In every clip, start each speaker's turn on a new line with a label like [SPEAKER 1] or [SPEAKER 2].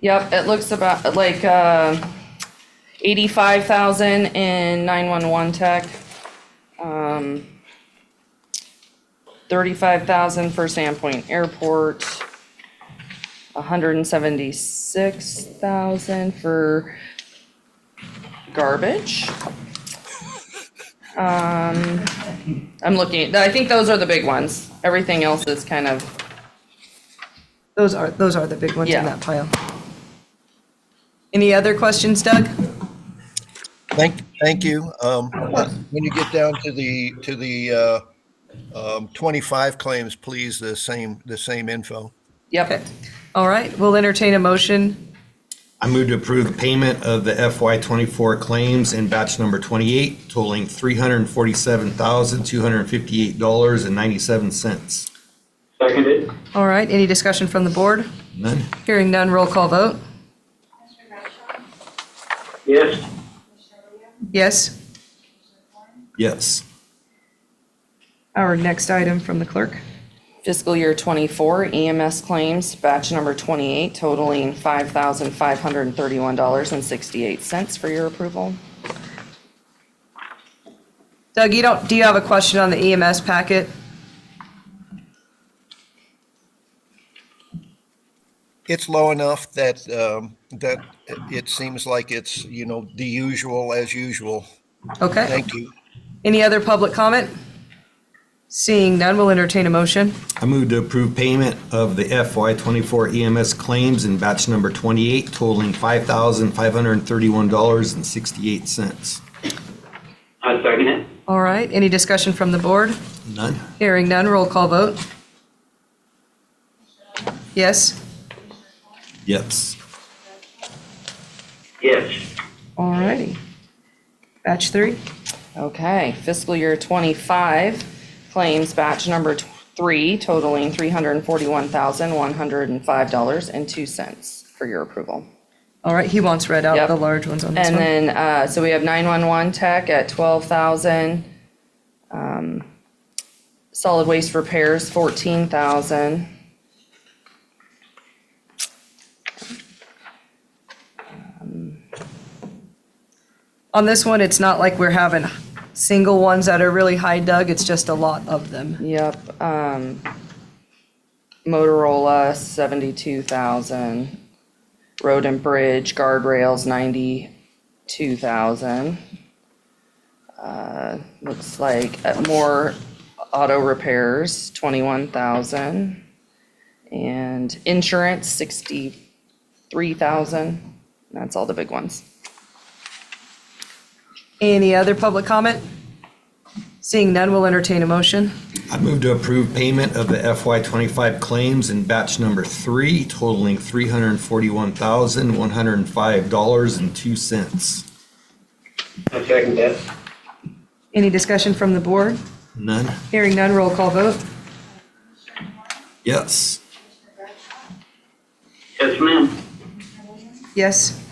[SPEAKER 1] Yep, it looks about like, uh, eighty-five thousand in nine-one-one tech. Um, thirty-five thousand for Sandpoint Airport. hundred and seventy-six thousand for garbage. Um, I'm looking, I think those are the big ones. Everything else is kind of,
[SPEAKER 2] Those are, those are the big ones
[SPEAKER 1] Yeah.
[SPEAKER 2] in that pile. Any other questions, Doug?
[SPEAKER 3] Thank, thank you. Um, When you get down to the, to the uh, um, 25 claims, please, the same, the same info.
[SPEAKER 1] yep,
[SPEAKER 2] Okay. All right, we'll entertain a motion.
[SPEAKER 4] I move to approve the payment of the FY twenty-four claims in batch number twenty-eight totaling three hundred and forty-seven thousand, two hundred and fifty-eight dollars and ninety-seven cents.
[SPEAKER 5] Seconded.
[SPEAKER 2] All right, any discussion from the board?
[SPEAKER 4] None?
[SPEAKER 2] Hearing none, roll call vote.
[SPEAKER 6] Commissioner Bradshaw,
[SPEAKER 5] Yes.
[SPEAKER 6] Commissioner Rea,
[SPEAKER 2] Yes?
[SPEAKER 6] Commissioner Warren,
[SPEAKER 4] Yes.
[SPEAKER 2] Our next item from the clerk.
[SPEAKER 1] fiscal year twenty-four EMS claims, batch number twenty-eight totaling five thousand five hundred and thirty-one dollars and sixty-eight cents for your approval.
[SPEAKER 2] Doug, you don't, do you have a question on the EMS packet?
[SPEAKER 3] It's low enough that, um, that it seems like it's, you know, the usual as usual.
[SPEAKER 2] Okay.
[SPEAKER 3] Thank you.
[SPEAKER 2] Any other public comment? Seeing none, we'll entertain a motion.
[SPEAKER 4] I move to approve payment of the FY twenty-four EMS claims in batch number twenty-eight totaling five thousand, five hundred and thirty-one dollars and sixty-eight cents.
[SPEAKER 5] I second it.
[SPEAKER 2] All right, any discussion from the board?
[SPEAKER 4] None?
[SPEAKER 2] Hearing none, roll call vote. Yes?
[SPEAKER 4] Yes.
[SPEAKER 5] Yes.
[SPEAKER 2] All righty. Batch three?
[SPEAKER 1] Okay, fiscal year twenty-five claims, batch number tw- three totaling three hundred and forty-one thousand one hundred and five dollars and two cents for your approval.
[SPEAKER 2] All right, he wants read out
[SPEAKER 1] Yep.
[SPEAKER 2] the large ones on this
[SPEAKER 1] And
[SPEAKER 2] one.
[SPEAKER 1] then, uh, so we have nine-one-one tech at twelve thousand. um, Solid waste repairs, fourteen thousand.
[SPEAKER 2] On this one, it's not like we're having single ones that are really high, Doug, it's just a lot of them.
[SPEAKER 1] Yep, um, Motorola, seventy-two thousand. Road and Bridge, guardrails, ninety-two thousand. Uh, looks like uh, more auto repairs, twenty-one thousand. And insurance, sixty-three thousand. That's all the big ones.
[SPEAKER 2] Any other public comment? Seeing none, we'll entertain a motion.
[SPEAKER 4] I move to approve payment of the FY twenty-five claims in batch number three totaling three hundred and forty-one thousand, one hundred and five dollars and two cents.
[SPEAKER 5] I second that.
[SPEAKER 2] Any discussion from the board?
[SPEAKER 4] None?
[SPEAKER 2] Hearing none, roll call vote.
[SPEAKER 4] Yes.
[SPEAKER 6] Commissioner Bradshaw,
[SPEAKER 5] Yes, ma'am.
[SPEAKER 6] Commissioner Williams,
[SPEAKER 2] Yes?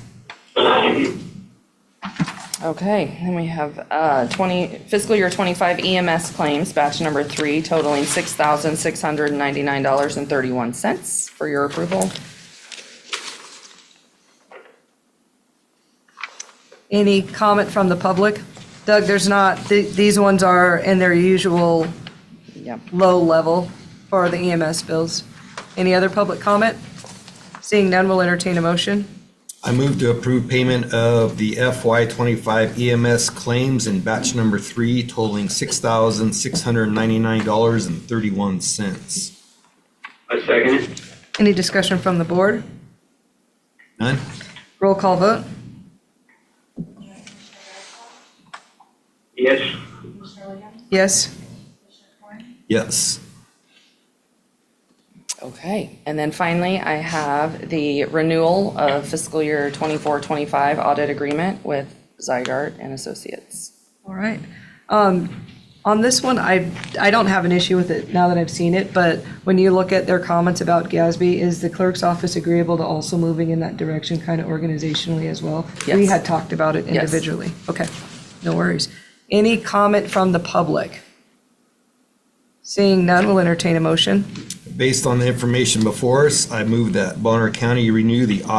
[SPEAKER 1] Okay, then we have uh, 20, fiscal year 25 EMS claims, batch number three totaling $6,699.31 for your approval.
[SPEAKER 2] Any comment from the public? Doug, there's not, th- these ones are in their usual
[SPEAKER 1] Yep.
[SPEAKER 2] low level for the EMS bills. Any other public comment? Seeing none, we'll entertain a motion.
[SPEAKER 4] I move to approve payment of the FY twenty-five EMS claims in batch number three totaling six thousand, six hundred and ninety-nine dollars and thirty-one cents.
[SPEAKER 5] I second it.
[SPEAKER 2] Any discussion from the board?
[SPEAKER 4] None?
[SPEAKER 2] Roll call vote?
[SPEAKER 5] Yes.
[SPEAKER 6] Commissioner Williams,
[SPEAKER 2] Yes?
[SPEAKER 6] Commissioner Warren,
[SPEAKER 4] Yes.
[SPEAKER 1] Okay, and then finally, I have the renewal of fiscal year 24, 25 audit agreement with Zygarde and Associates.
[SPEAKER 2] All right. Um, On this one, I, I don't have an issue with it now that I've seen it, but when you look at their comments about Gatsby, is the clerk's office agreeable to also moving in that direction kind of organizationally as well? We
[SPEAKER 1] Yes.
[SPEAKER 2] had talked about it individually. Okay, no worries. Any comment from the public? Seeing none, we'll entertain a motion.
[SPEAKER 4] Based on the information before us, I move that Bonner County renew the